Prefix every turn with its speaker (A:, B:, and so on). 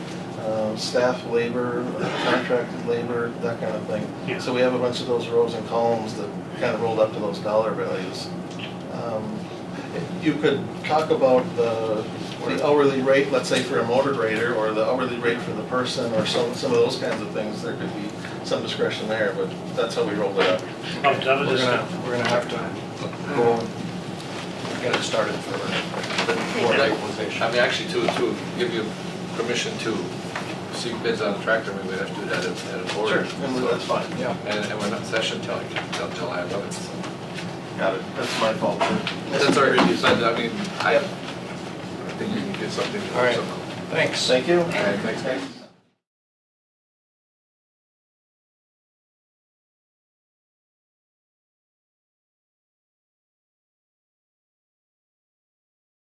A: um, staff labor, contracted labor, that kind of thing.
B: Yeah.
A: So we have a bunch of those rows and columns that kind of rolled up to those dollar values. Um, You could talk about the the hourly rate, let's say for a motor grader, or the hourly rate for the person, or some, some of those kinds of things. There could be some discretion there, but that's how we rolled it up.
B: Oh, that was
A: We're
B: just,
A: gonna,
B: a-
A: we're gonna have to go and get it started for
C: Or
A: the
C: like-
A: equalization.
C: I mean, actually, to, to give you permission to seek bids on a tractor, we would have to do that at, at a
A: Sure,
C: board.
A: and that's fine, yeah.
C: And, and we're not in session till, like, till July eleventh, so.
A: Got it, that's my fault.
C: That's all right, you said, I mean, I, I think you can get something.
A: All right.
C: somehow.
A: Thanks. Thank you.
C: All right, thanks.